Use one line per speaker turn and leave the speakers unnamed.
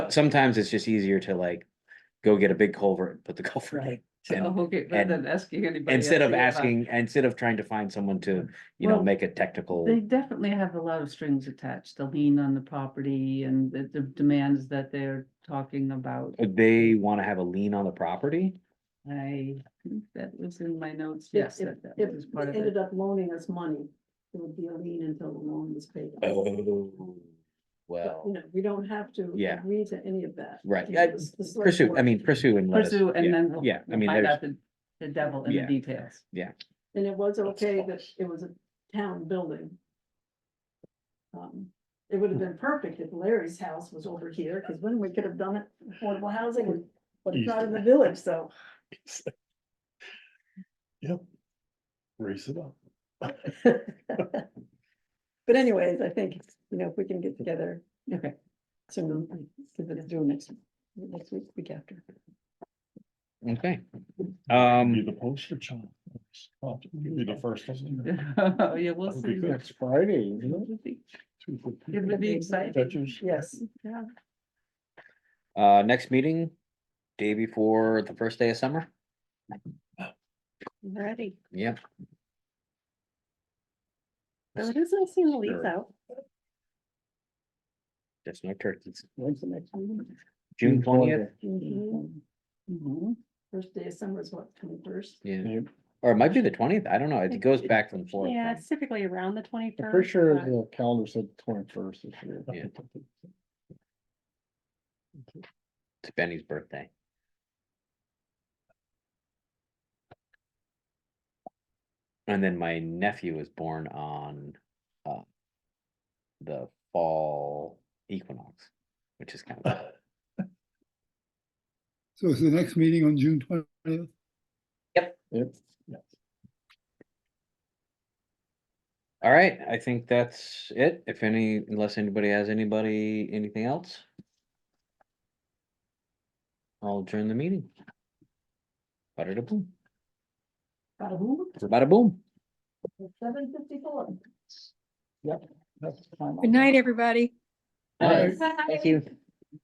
sometimes it's just easier to like go get a big culvert and put the culvert in.
Right.
And
Okay, rather
and-
than asking anybody.
Instead
else
of
to get by.
asking, instead of trying to find someone to, you know,
Well,
make a technical,
They definitely have a lot of strings attached, the lien on the property and the, the demands that they're talking about.
they wanna have a lien on the property?
I, think that was in my notes,
If-
yes,
if-
that, that
If
was part
they
of it.
ended up loaning us money, it would be a lien until the loan was paid. off.
Oh,
But, You
well,
know, we don't have to
Yeah.
agree to any of that.
Right,
You
yeah,
know, it's the select
pursue, I
board.
mean, pursue and let us.
Pursue
yeah,
and then we'll.
Yeah, I
we'll
mean,
Find
there's,
out the, the devil in
Yeah.
the details.
And it was okay that it was a town building. Um, It would have been perfect if Larry's house was over here, because then we could have done it affordable housing, and but it's not in the village, so.
Yep. Raise it up.
But anyways, I think, you know, if we can get together
Okay,
soon, because it's due next, next week, week after.
okay.
Be
Um,
the poster child. Oh, you'll Be the first. one.
Oh, yeah, we'll
That'd be
see.
good.
It
Next Friday.
would be- it would be exciting.
Yes.
Yeah.
uh, next meeting, day before the first day of summer,
Ready.
yeah.
So it is nice seeing the leaves
Sure.
out.
That's no turkeys,
When's the next meeting?
June
June
twentieth,
Mm-hmm. Mhm.
First day of summer is what, twenty-first?
yeah,
Yeah,
or it might be the twentieth, I don't know, it goes back from four.
Yeah, it's typically around the
I'm pretty
twenty-first.
sure the calendar said twenty first this year.
Yeah. It's Benny's birthday. And then my nephew was born on, uh. The fall equinox, which is kind of,
So is the next meeting on June twentieth?
Yep.
all right, I think that's it, if any, unless anybody has anybody, anything else. I'll adjourn the meeting. Bada da boom, bada boom.
Seven fifty-four.
That's
Good night, everybody.
Thank you.